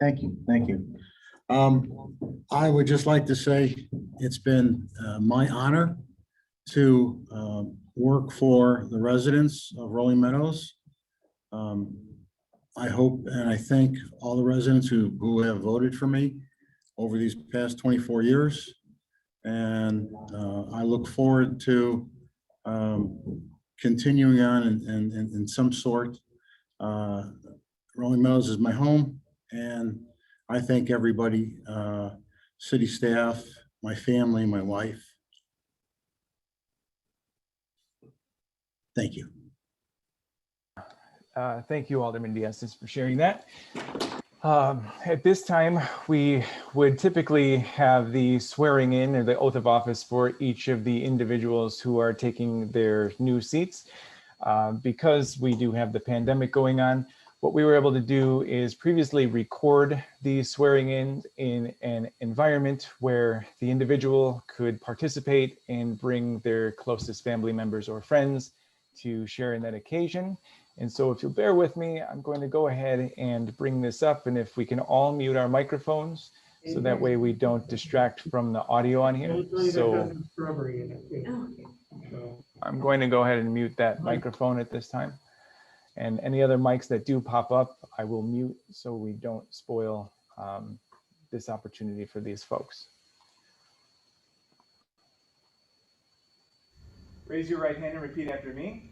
Thank you, thank you. Um, I would just like to say it's been uh, my honor to um, work for the residents of Rolling Meadows. Um, I hope and I thank all the residents who, who have voted for me over these past 24 years. And uh, I look forward to um, continuing on in, in, in some sort. Uh, Rolling Meadows is my home and I thank everybody, uh, city staff, my family, my wife. Thank you. Uh, Thank you, Alderman Diastis, for sharing that. Um, At this time, we would typically have the swearing in or the oath of office for each of the individuals who are taking their new seats. Uh, Because we do have the pandemic going on, what we were able to do is previously record the swearing in in an environment where the individual could participate and bring their closest family members or friends to share in that occasion. And so if you'll bear with me, I'm going to go ahead and bring this up and if we can all mute our microphones so that way we don't distract from the audio on here. Usually that So doesn't Strawberry in it, too. So, I'm going to go ahead and mute that microphone at this time. And any other mics that do pop up, I will mute so we don't spoil um, this opportunity for these folks. Raise your right hand and repeat after me.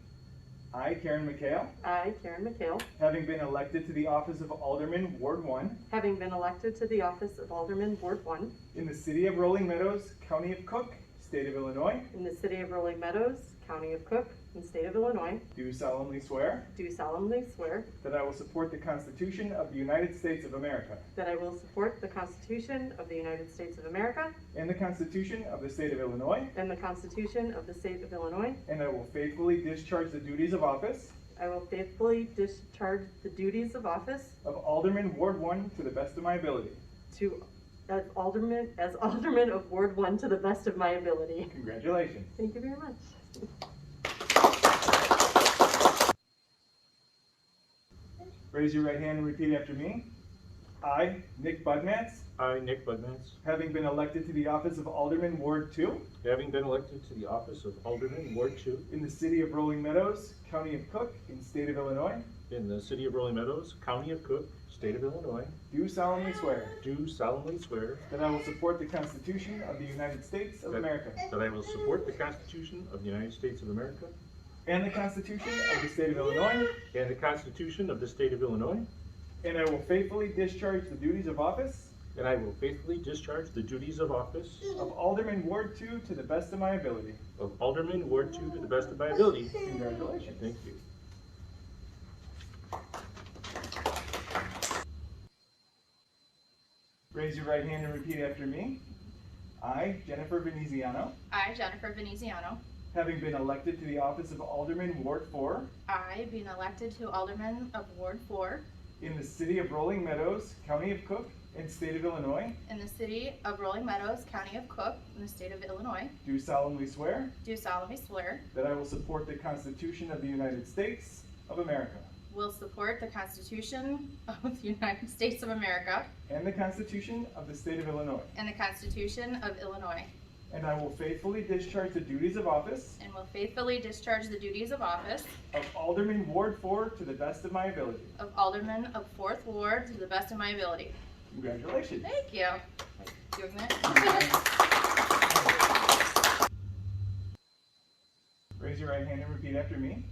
I, Karen McHale, I, Karen McHale, having been elected to the office of Alderman, Ward 1, having been elected to the office of Alderman Ward One in the city of Rolling Meadows, county of Cook, state of Illinois, in the city of Rolling Meadows, county of Cook, and state of Illinois, do solemnly swear do solemnly swear that I will support the Constitution of the United States of America. that I will support the Constitution of the United States of America And the Constitution of the State of Illinois. and the Constitution of the state of Illinois. And I will faithfully discharge the duties of office I will faithfully discharge the duties of office of Alderman Ward 1 to the best of my ability. to as Alderman, as Alderman of Ward One to the best of my ability. Congratulations. Thank you very much. Raise your right hand and repeat after me. I, Nick Budmats, I, Nick Budmats, having been elected to the office of Alderman Ward 2 having been elected to the office of Alderman, Ward Two, in the city of Rolling Meadows, county of Cook, and state of Illinois, in the city of Rolling Meadows, county of Cook, state of Illinois, do solemnly swear do solemnly swear that I will support the Constitution of the United States of That- America that I will support the Constitution of the United States of America and the Constitution of the state of Illinois, and the Constitution of the state of Illinois, and I will faithfully discharge the duties of office and I will faithfully discharge the duties of office of Alderman Ward 2 to the best of my ability. of Alderman, Ward Two, to the best of my ability. Congratulations. Thank you. Raise your right hand and repeat after me. I, Jennifer veneziano I, Jennifer Veneziano, having been elected to the office of Alderman Ward 4 I, being elected to Alderman of Ward 4 in the city of Rolling Meadows, county of Cook, and state of Illinois, in the city of Rolling Meadows, county of Cook, in the state of Illinois, do solemnly swear do solemnly swear that I will support the Constitution of the United States of America will support the Constitution of the United States of America and the Constitution of the state of Illinois, and the Constitution of Illinois, and I will faithfully discharge the duties of office and will faithfully discharge the duties of office of Alderman Ward 4 to the best of my ability. of Alderman of Fourth Ward to the best of my ability. Congratulations. Thank you. Doing that? Raise your right hand and repeat after me.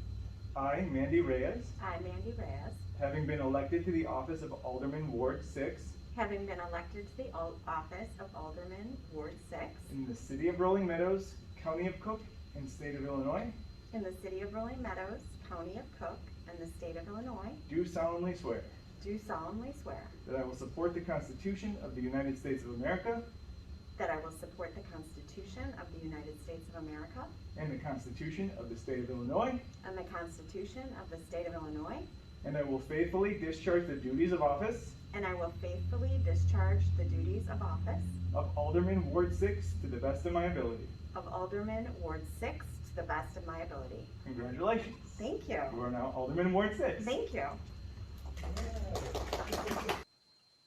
I, Mandy Reyes, I, Mandy Reyes, having been elected to the office of Alderman Ward 6 having been elected to the al- office of Alderman, Ward 6, in the city of Rolling Meadows, county of Cook, and state of Illinois, in the city of Rolling Meadows, county of Cook, and the state of Illinois, do solemnly swear do solemnly swear that I will support the Constitution of the United States of America that I will support the Constitution of the United States of America and the Constitution of the state of Illinois, and the Constitution of the state of Illinois, and I will faithfully discharge the duties of office and I will faithfully discharge the duties of office of Alderman Ward 6 to the best of my ability. of Alderman, Ward 6, to the best of my ability. Congratulations. Thank You you. are now Alderman Ward 6. Thank you.